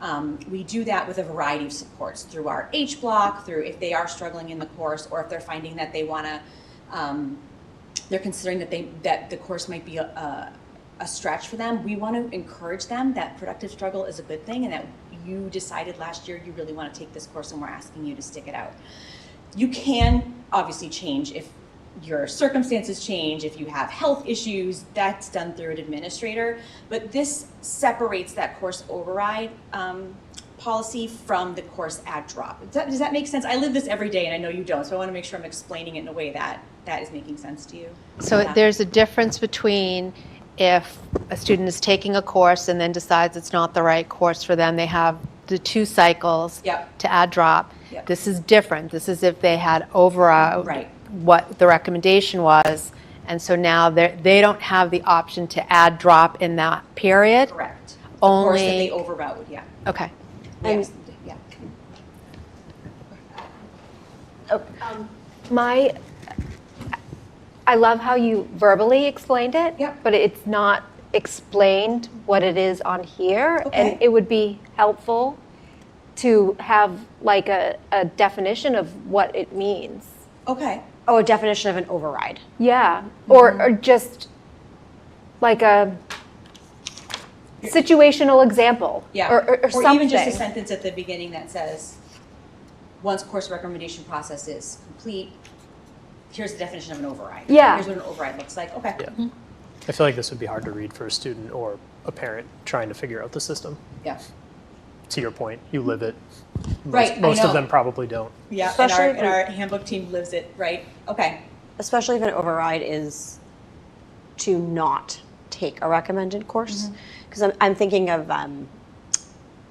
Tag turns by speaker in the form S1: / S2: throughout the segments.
S1: Um, we do that with a variety of supports through our H block, through if they are struggling in the course, or if they're finding that they want to, um, they're considering that they that the course might be a, a, a stretch for them. We want to encourage them that productive struggle is a good thing, and that you decided last year you really want to take this course, and we're asking you to stick it out. You can obviously change if your circumstances change, if you have health issues, that's done through an administrator. But this separates that course override um, policy from the course ad drop. Does that, does that make sense? I live this every day and I know you don't, so I want to make sure I'm explaining it in a way that that is making sense to you.
S2: So
S1: Yeah.
S2: there's a difference between if a student is taking a course and then decides it's not the right course for them, they have the two cycles
S1: Yep.
S2: to add drop.
S1: Yep.
S2: This is different. This is if they had overall
S1: Right.
S2: what the recommendation was, and so now they they don't have the option to add drop in that period.
S1: Correct. The course that they
S2: Only-
S1: overrode, yeah.
S2: Okay.
S3: And-
S1: Yes, yeah.
S3: My, I love how you verbally explained it.
S1: Yep.
S3: But it's not explained what it is on here.
S1: Okay.
S3: And it would be helpful to have like a, a definition of what it means.
S1: Okay.
S4: Oh, a definition of an override.
S3: Yeah,
S1: Mm-hmm.
S3: or, or just like a situational example.
S1: Yeah.
S3: Or, or, or something.
S1: even just a sentence at the beginning that says, once course recommendation process is complete, here's the definition of an override.
S3: Yeah.
S1: Here's what an override looks like. Okay.
S5: Yeah. I feel like this would be hard to read for a student or a parent trying to figure out the system.
S1: Yeah.
S5: To your point, you live it. Most,
S1: Right, I
S5: most
S1: know.
S5: of them probably don't.
S1: Yeah. And our,
S4: Especially if
S1: and
S4: we-
S1: our handbook team lives it, right? Okay.
S4: especially if an override is to not take a recommended course.
S1: Mm-hmm.
S4: Because I'm, I'm thinking of um,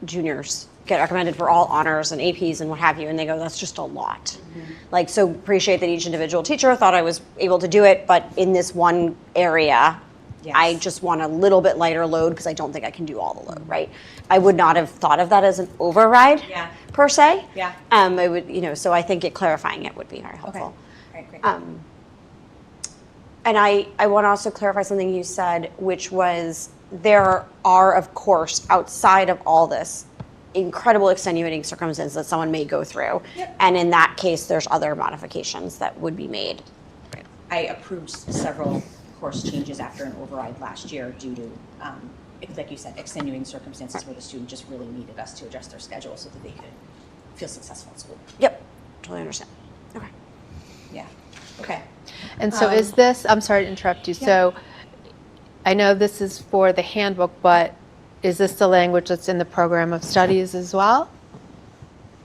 S4: juniors get recommended for all honors and APs and what have you, and they go, that's just a lot.
S1: Mm-hmm.
S4: Like, so appreciate that each individual teacher thought I was able to do it, but in this one area, I
S1: Yes. Mm-hmm.
S4: just want a little bit lighter load because I don't think I can do all the load, right? I would not have thought of that as an override
S1: Yeah.
S4: per se.
S1: Yeah.
S4: Um, I would, you know, so I think it clarifying it would be very
S1: Okay.
S4: helpful.
S1: All right, great.
S4: Um, and I, I want to also clarify something you said, which was there are, of course, outside of all this, incredible extenuating circumstances that someone may go through.
S1: Yep.
S4: And in that case, there's other modifications that would be made.
S1: I approved several course changes after an override last year due to, um, ex- like you said, extenuating circumstances where the student just really needed us to adjust their schedule so that they could feel successful in school.
S4: Yep, totally understand. Okay.
S1: Yeah. Okay.
S2: And so is this, I'm sorry to interrupt you, so I know this is for the handbook, but is this the language that's in the program of studies as well?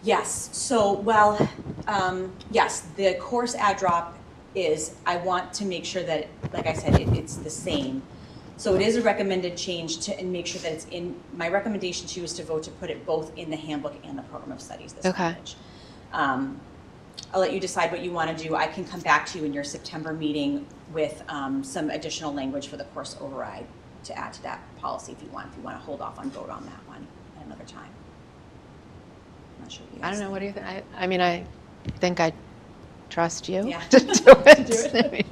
S1: Yes, so, well, um, yes, the course ad drop is, I want to make sure that, like I said, it, it's the same. So it is a recommended change to, and make sure that it's in, my recommendation to you is to vote to put it both in the handbook and the program of studies this
S2: Okay.
S1: language. Um, I'll let you decide what you want to do. I can come back to you in your September meeting with, um, some additional language for the course override to add to that policy if you want, if you want to hold off on vote on that one at another time. I'm not sure what you guys
S2: I don't know, what do you think? I, I mean, I think I trust you
S1: Yeah.
S2: to do it.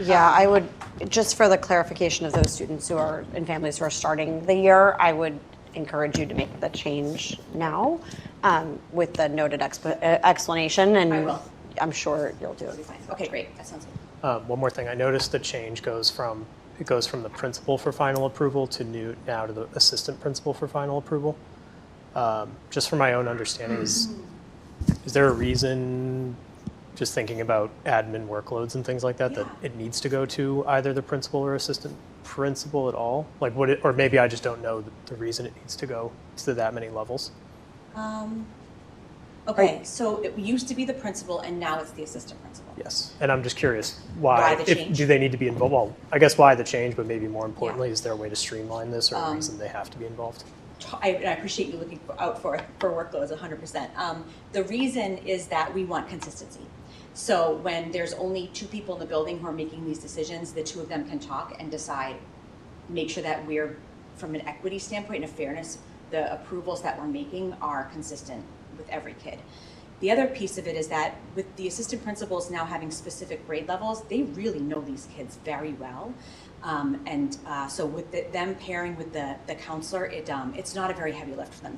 S4: Yeah, I would, just for the clarification of those students who are, and families who are starting the year, I would encourage you to make the change now um, with the noted exp- uh, explanation and.
S1: I will.
S4: am sure you'll do it.
S1: Fine. Okay, great, that sounds good.
S5: Um, one more thing, I noticed the change goes from it goes from the principal for final approval to new now to the assistant principal for final approval. Um, just for my own understanding, is is there a reason? Just thinking about admin workloads and things like that, that
S1: Yeah.
S5: it needs to go to either the principal or assistant principal at all. Like what? It, or maybe I just don't know the, the reason it needs to go to that many levels.
S1: Um, Okay, so it used to be the principal and now it's the assistant principal.
S5: Yes, and I'm just curious why,
S1: Why the
S5: if,
S1: change?
S5: do they need to be involved? Well, I guess why the change, but maybe more importantly, is there a way to streamline this or a
S1: Um,
S5: reason they have to be involved?
S1: t- I, and I appreciate you looking for- out for, for workloads hundred percent. Um, the reason is that we want consistency. So when there's only two people in the building who are making these decisions, the two of them can talk and decide, make sure that we're, from an equity standpoint and a fairness, the approvals that we're making are consistent with every kid. The other piece of it is that with the assistant principals now having specific grade levels, they really know these kids very well. Um, and uh, so with the, them pairing with the, the counselor, it, um, it's not a very heavy lift for them.